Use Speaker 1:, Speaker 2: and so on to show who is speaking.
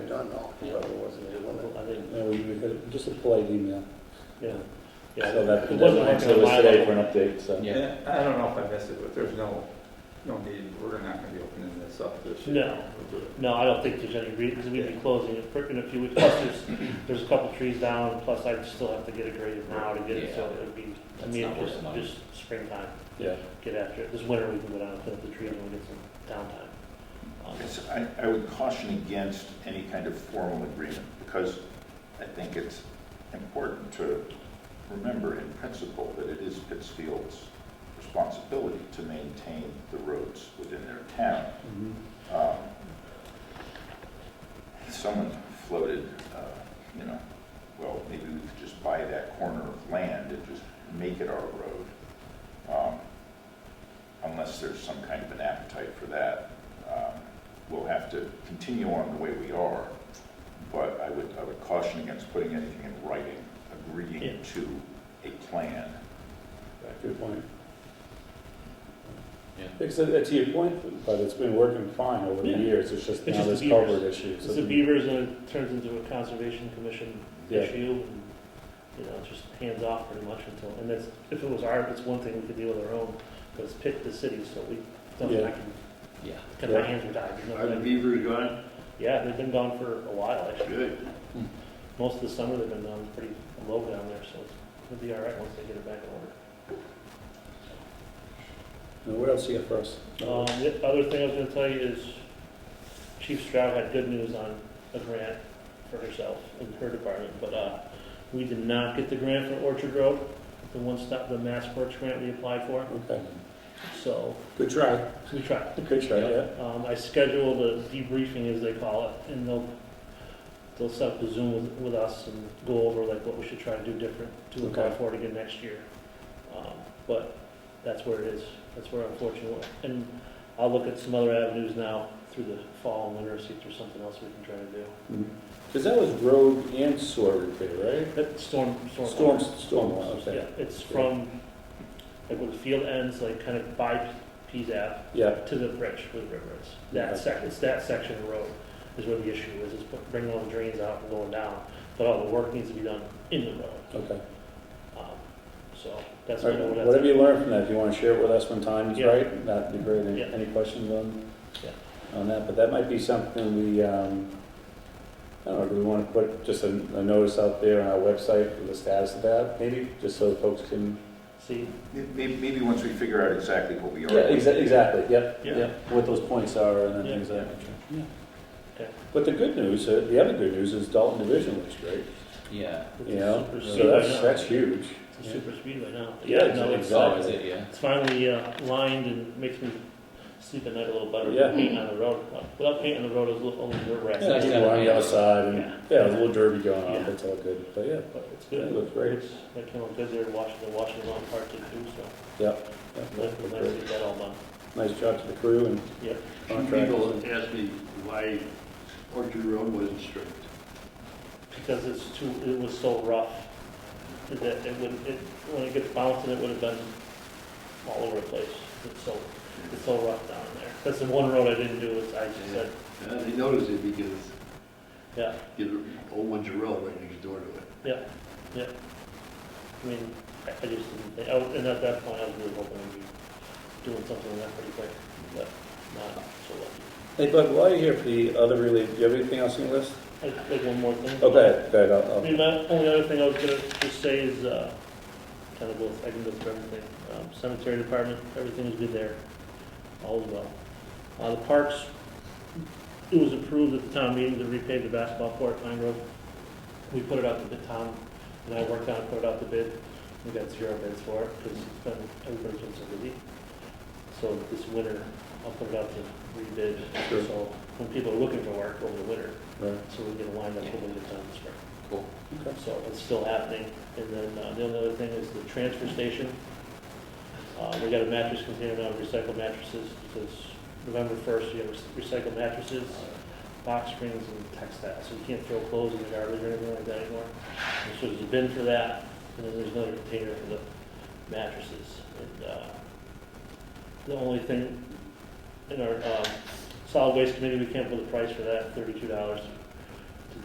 Speaker 1: uh, we would hit- just a polite email.
Speaker 2: yeah. Yeah,
Speaker 1: So that,
Speaker 2: it
Speaker 1: that's
Speaker 2: wasn't
Speaker 1: why
Speaker 2: like
Speaker 1: it's always today for an update, so.
Speaker 3: Yeah.
Speaker 4: And I don't know if I missed it, but there's no, no need, we're not gonna be opening this up this year.
Speaker 2: No, no, I don't think there's any reason, because we'd be closing it for- in a few weeks, plus there's, there's a couple trees down, plus I'd still have to get it graded now to get it, so
Speaker 3: Yeah.
Speaker 2: it'd be, I
Speaker 3: That's
Speaker 2: mean,
Speaker 3: not
Speaker 2: just,
Speaker 3: worth the money.
Speaker 2: just springtime,
Speaker 1: Yeah,
Speaker 2: get after it. This winter, we can go down and put up the tree and we'll get some downtime. Um,
Speaker 5: It's- I, I would caution against any kind of formal agreement, because I think it's important to remember in principle that it is Pittsfield's responsibility to maintain the roads within their town.
Speaker 1: Mhm.
Speaker 5: Um, Someone floated, uh, you know, well, maybe we could just buy that corner of land and just make it our road. Um, Unless there's some kind of an appetite for that. Um, We'll have to continue on the way we are, but I would, I would caution against putting anything in writing,
Speaker 2: Yeah.
Speaker 5: agreeing to a plan.
Speaker 1: good point.
Speaker 3: Yeah.
Speaker 1: Because uh, to your point, but it's been working fine over the
Speaker 2: Yeah.
Speaker 1: years, it's just now
Speaker 2: It's just
Speaker 1: this
Speaker 2: the beavers.
Speaker 1: culvert issue.
Speaker 2: It's
Speaker 1: so-
Speaker 2: the beavers and it turns into a conservation commission
Speaker 1: Yeah.
Speaker 2: issue, and, you know, it's just hands off pretty much until, and that's, if it was our, it's one thing we could deal with our own, but it's picked the city, so we, nothing I
Speaker 1: Yeah.
Speaker 2: can,
Speaker 3: Yeah.
Speaker 2: cut my
Speaker 1: Yeah.
Speaker 2: hands are tied. There's nothing I
Speaker 6: Are the
Speaker 2: can-
Speaker 6: beavers gone?
Speaker 2: Yeah, they've been gone for a while, actually.
Speaker 6: Good.
Speaker 2: Most of the summer, they've been down pretty low down there, so it's- it'll be all right once they get it back in order.
Speaker 1: Now, what else you got for us?
Speaker 2: Um, the other thing I was gonna tell you is Chief Stroud had good news on a grant for herself and her department, but, uh, we did not get the grant for Orchard Road, the one stop, the Mass Works grant we applied for,
Speaker 1: Okay,
Speaker 2: so
Speaker 1: good try,
Speaker 2: we tried.
Speaker 1: good try, yeah.
Speaker 2: Um, I scheduled a debriefing, as they call it, and they'll, they'll set up a Zoom with, with us and go over like what we should try to do different to apply
Speaker 1: Okay.
Speaker 2: for it again next year. Um, But that's where it is, that's where unfortunately, and I'll look at some other avenues now through the fall and winter, see if there's something else we can try to do.
Speaker 1: Because that was road and sewer repair,
Speaker 2: But storm, storm.
Speaker 1: right? Storm, storm, okay.
Speaker 2: Yeah, it's from, like where the field ends, like kind of by Pease Ave,
Speaker 1: Yeah,
Speaker 2: to the bridge where the river is. That
Speaker 1: Okay.
Speaker 2: sec, it's that section of road is where the issue is, is put- bringing all the drains out and going down, but all the work needs to be done in the road.
Speaker 1: okay.
Speaker 2: Um, So that's
Speaker 1: All
Speaker 2: kind of
Speaker 1: right,
Speaker 2: what I.
Speaker 1: Whatever you learn from that, if you want to share it with us when time is
Speaker 2: Yeah.
Speaker 1: right, that'd be great. Any-
Speaker 2: Yeah.
Speaker 1: Any questions on,
Speaker 2: Yeah.
Speaker 1: on that? But that might be something we, um, I don't know, do we want to put just a, a notice out there on our website for the status of that, maybe, just so folks can.
Speaker 2: See,
Speaker 5: Maybe, maybe once we figure out exactly what we are.
Speaker 1: Yeah, exa- exactly, yep,
Speaker 2: Yeah.
Speaker 1: yep, what those points are and then
Speaker 2: Yeah.
Speaker 1: things of that nature. Yeah.
Speaker 2: Okay.
Speaker 1: But the good news, uh, the other good news is Dalton Division looks great,
Speaker 3: Yeah.
Speaker 2: it's
Speaker 1: you
Speaker 2: a
Speaker 1: know,
Speaker 2: super
Speaker 1: so
Speaker 2: speed right
Speaker 1: that's,
Speaker 2: now.
Speaker 1: that's huge.
Speaker 2: It's a
Speaker 1: Yeah.
Speaker 2: super speed right now.
Speaker 1: Yeah,
Speaker 2: no,
Speaker 1: exactly.
Speaker 2: it's-
Speaker 3: So is it, yeah.
Speaker 2: It's finally uh, lined and makes me sleep at night a little better. with
Speaker 1: Yeah.
Speaker 2: Paint on the road, Like, without paint on the road, it's a little, only dirt
Speaker 1: Yeah,
Speaker 2: racks,
Speaker 3: nice to
Speaker 1: people
Speaker 3: have
Speaker 1: on
Speaker 3: a
Speaker 1: the
Speaker 3: hand.
Speaker 1: outside and,
Speaker 2: Yeah.
Speaker 1: yeah, there's a little derby going on,
Speaker 2: Yeah.
Speaker 1: but it's all good, but yeah.
Speaker 2: but it's
Speaker 1: Yeah,
Speaker 2: good.
Speaker 1: it looks great.
Speaker 2: It's- That came out good there, watching the Washington Lawn Park did too, so
Speaker 1: yeah,
Speaker 2: nice,
Speaker 1: looked
Speaker 2: nice to
Speaker 1: great.
Speaker 2: get that all done.
Speaker 1: Nice job to the crew and
Speaker 2: Yeah.
Speaker 6: Two
Speaker 1: contractors.
Speaker 6: people asked me why Orchard Road wasn't straight.
Speaker 2: because it's too, it was so rough, that it would, it, when it gets bouncing, it would have been all over the place. It's so, it's so rough down there. That's the one road I didn't do, is I just said,
Speaker 6: Uh, They noticed it because
Speaker 2: yeah,
Speaker 6: the old Windsor Road right next door to it.
Speaker 2: yeah, yeah. I mean, I I just didn't, think- I was- and at that point, I was really hoping we'd be doing something like that pretty quick, but not so lucky.
Speaker 1: Hey Bud, while you're here for the other related, do you have anything else on your list? Oh,
Speaker 2: I think one more thing.
Speaker 1: Okay, good,
Speaker 2: I
Speaker 1: I'll,
Speaker 2: mean, the only other thing I was gonna just say is, uh, kind of both, I can go through everything. Um, Cemetery department, everything is good there, all is well. Uh, the parks, it was approved at the town meeting to repave the basketball court, Pine Grove. We put it out to bid, Tom and I worked on it, put it out to bid. We got zero bids for it, because it's been, everybody's been so busy. So this winter, I'll put it out to rebid,
Speaker 1: Sure.
Speaker 2: so when people are looking for work over the winter,
Speaker 1: I'll, right,
Speaker 2: so we can line up a little bit down the spring.
Speaker 3: Cool.
Speaker 1: Okay.
Speaker 2: So it's still happening. And then uh, the only other thing is the transfer station. Uh, We got a mattress container now, recycled mattresses, because November 1st, you have recycled mattresses, box springs, and textiles. So you can't throw clothes in the garbage or anything like that anymore. And So there's a bin for that, and then there's another container for the mattresses. And uh, the only thing in our um, solid waste committee, we can't put a price for that, $32